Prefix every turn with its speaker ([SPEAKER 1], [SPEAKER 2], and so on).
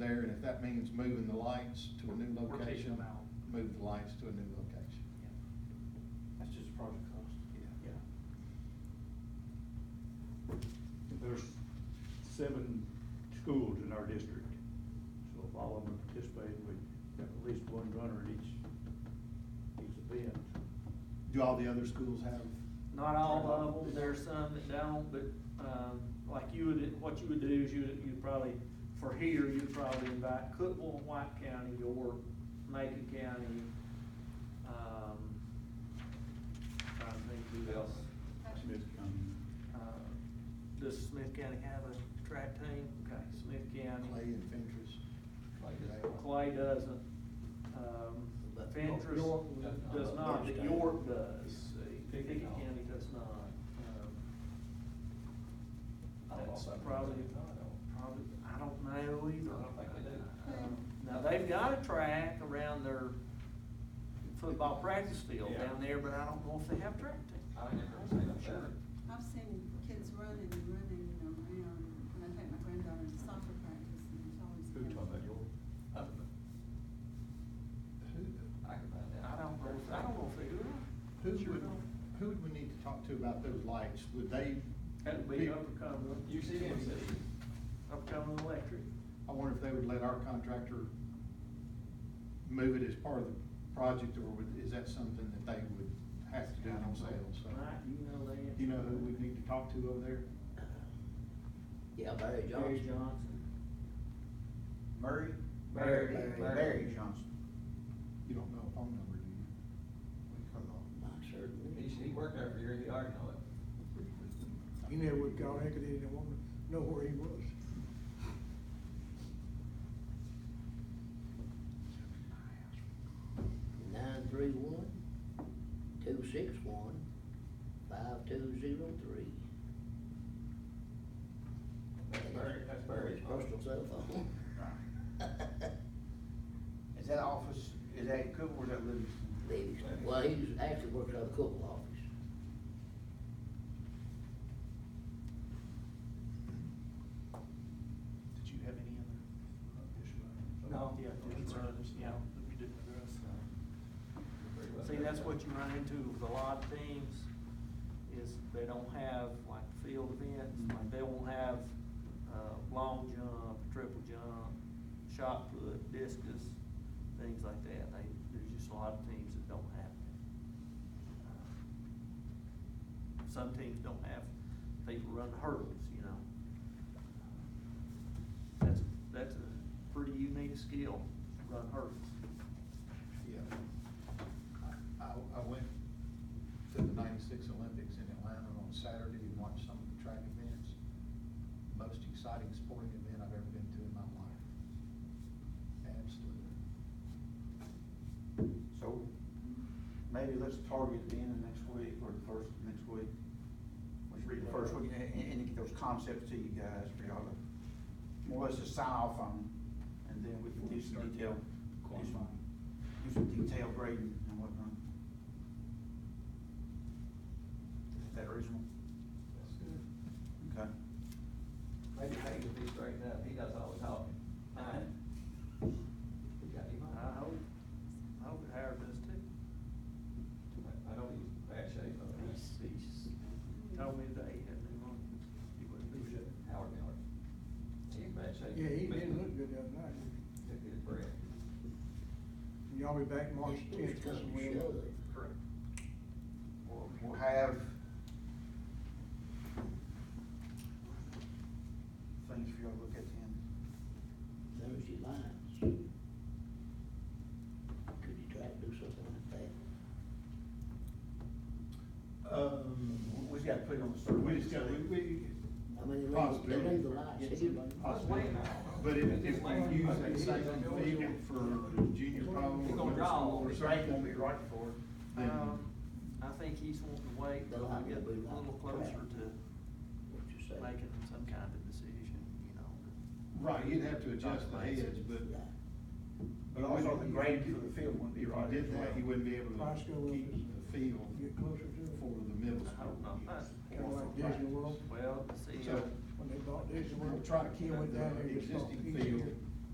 [SPEAKER 1] there, and if that means moving the lights to a new
[SPEAKER 2] We're taking
[SPEAKER 1] location,
[SPEAKER 2] them out.
[SPEAKER 1] move the lights to a new location.
[SPEAKER 3] That's just project cost.
[SPEAKER 2] Yeah.
[SPEAKER 3] There's seven schools in our district, so if all of them participate, we have at least one runner at each, each event.
[SPEAKER 1] Do all the other schools have?
[SPEAKER 2] Not all of them, there are some that don't, but, um, like you would, what you would do is you, would- you'd probably, for here, you'd probably invite Cookville and White County or Macon County, um, trying to think who else.
[SPEAKER 3] Smith County.
[SPEAKER 2] Uh, Does Smith County have a track team? Okay, Smith
[SPEAKER 1] Clay
[SPEAKER 2] County.
[SPEAKER 1] and Fentress.
[SPEAKER 2] Clay doesn't, um,
[SPEAKER 1] But-
[SPEAKER 2] Fentress
[SPEAKER 1] York-
[SPEAKER 2] does not, but
[SPEAKER 3] York-
[SPEAKER 2] York does, Pickett
[SPEAKER 3] Pickett-
[SPEAKER 2] County does not. Um,
[SPEAKER 4] I don't
[SPEAKER 2] That's
[SPEAKER 4] know.
[SPEAKER 2] probably, probably, I don't know either.
[SPEAKER 4] I don't think they do.
[SPEAKER 2] Um, Now, they've got a track around their football practice field
[SPEAKER 4] Yeah.
[SPEAKER 2] down there, but I don't know if they have track team.
[SPEAKER 4] I ain't never seen them there.
[SPEAKER 5] I've seen kids running and running and around, and I take my granddaughter to soccer practice, and it's always.
[SPEAKER 3] Who talking about your?
[SPEAKER 4] I don't know. I can find out.
[SPEAKER 2] I don't know, if- I don't know if they do.
[SPEAKER 1] Who would, who would we need to talk to about those lights? Would they?
[SPEAKER 2] That'd be Uppercoming,
[SPEAKER 4] You see them, see.
[SPEAKER 2] Uppercoming Electric.
[SPEAKER 1] I wonder if they would let our contractor move it as part of the project, or would, is that something that they would have to do themselves? So,
[SPEAKER 2] Mike, you know that.
[SPEAKER 1] Do you know who we need to talk to over there?
[SPEAKER 6] Yeah, Barry
[SPEAKER 2] Barry
[SPEAKER 6] Johnson.
[SPEAKER 2] Johnson.
[SPEAKER 6] Murray?
[SPEAKER 2] Barry.
[SPEAKER 6] Barry Barry Johnson.
[SPEAKER 1] You don't know a phone number, do you?
[SPEAKER 6] Not certain.
[SPEAKER 4] He, he worked over here, he already know it.
[SPEAKER 7] He never would call heck, he didn't want to know where he was.
[SPEAKER 6] Nine three one, two six one, five two zero three.
[SPEAKER 4] That's Barry, that's Barry's.
[SPEAKER 6] Personal cell phone.
[SPEAKER 3] Is that office, is that Cook or is that Livingston?
[SPEAKER 6] Livingston. Well, he's actually works out of the Cookville office.
[SPEAKER 2] Did you have any other?
[SPEAKER 4] No.
[SPEAKER 2] Yeah, concerns, yeah, that we didn't address.
[SPEAKER 4] Pretty well.
[SPEAKER 2] See, that's what you run into with a lot of teams, is they don't have like field events, like they won't have, uh, long jump, triple jump, shot put, discus, things like that. They, there's just a lot of teams that don't have that. Uh, Some teams don't have, people run hurdles, you know. That's, that's a pretty unique skill, run hurdles.
[SPEAKER 1] Yeah. I, I- I went to the ninety-six Olympics in Atlanta on Saturday and watched some of the track events. Most exciting sporting event I've ever been to in my life. Absolutely.
[SPEAKER 3] So, maybe let's target the end of next week or the first of next week. Let's read the first week, and, and get those concepts to you guys for y'all to, more or less just sign off on them. And then we can do some detail, do some, do some detailed grading and whatnot. Is that reasonable?
[SPEAKER 4] That's good.
[SPEAKER 3] Okay.
[SPEAKER 4] Maybe Hank will be straightened up, he does all the talking. He got him on.
[SPEAKER 2] I hope, I hope it Howard does too.
[SPEAKER 4] I- I know he's in bad shape, but.
[SPEAKER 2] He's, he's told me today he had new one. He wouldn't do shit.
[SPEAKER 4] Howard Miller. He's in bad shape.
[SPEAKER 7] Yeah, he didn't look good that night.
[SPEAKER 4] Took his breath.
[SPEAKER 7] And Y'all be back March
[SPEAKER 6] It's-
[SPEAKER 7] tenth,
[SPEAKER 6] it's
[SPEAKER 7] that's
[SPEAKER 6] gonna
[SPEAKER 7] when we
[SPEAKER 6] show it.
[SPEAKER 1] Correct.
[SPEAKER 3] We'll, we'll have things for y'all to look at then.
[SPEAKER 6] Thursday lines. Could you try to do something like that?
[SPEAKER 1] Um,
[SPEAKER 3] We just gotta put it on the survey.
[SPEAKER 1] we just got, we, we.
[SPEAKER 6] I mean, they leave- they
[SPEAKER 1] Possibility.
[SPEAKER 6] leave the lights here.
[SPEAKER 1] Possibly, but if, if we use that same field for junior prom
[SPEAKER 4] He
[SPEAKER 1] or
[SPEAKER 4] gonna
[SPEAKER 1] middle
[SPEAKER 4] draw
[SPEAKER 1] school or
[SPEAKER 4] it.
[SPEAKER 1] something.
[SPEAKER 3] for it.
[SPEAKER 1] Then-
[SPEAKER 2] Um, I think he's wanting to wait till I get a little closer to
[SPEAKER 6] What you say?
[SPEAKER 2] making some kind of decision, you know.
[SPEAKER 1] Right, you'd have to adjust the heads, but.
[SPEAKER 6] Right.
[SPEAKER 3] But also the grade for the field wouldn't be right
[SPEAKER 1] If you
[SPEAKER 3] as
[SPEAKER 1] did that,
[SPEAKER 3] well.
[SPEAKER 1] you wouldn't be able
[SPEAKER 7] Price go
[SPEAKER 1] to
[SPEAKER 7] up
[SPEAKER 1] keep
[SPEAKER 7] as-
[SPEAKER 1] the field
[SPEAKER 7] get closer to it.
[SPEAKER 1] for the middle
[SPEAKER 2] I hope
[SPEAKER 1] school.
[SPEAKER 2] not.
[SPEAKER 1] use,
[SPEAKER 7] Kinda
[SPEAKER 1] or
[SPEAKER 7] like
[SPEAKER 1] for
[SPEAKER 7] Disney
[SPEAKER 1] practice.
[SPEAKER 7] World.
[SPEAKER 2] Well, see,
[SPEAKER 1] So-
[SPEAKER 2] uh,
[SPEAKER 7] When they bought Disney
[SPEAKER 1] We'll
[SPEAKER 7] World,
[SPEAKER 1] try to keep
[SPEAKER 7] Ken went down
[SPEAKER 1] the
[SPEAKER 7] there and just bought
[SPEAKER 1] existing
[SPEAKER 7] pieces.
[SPEAKER 1] field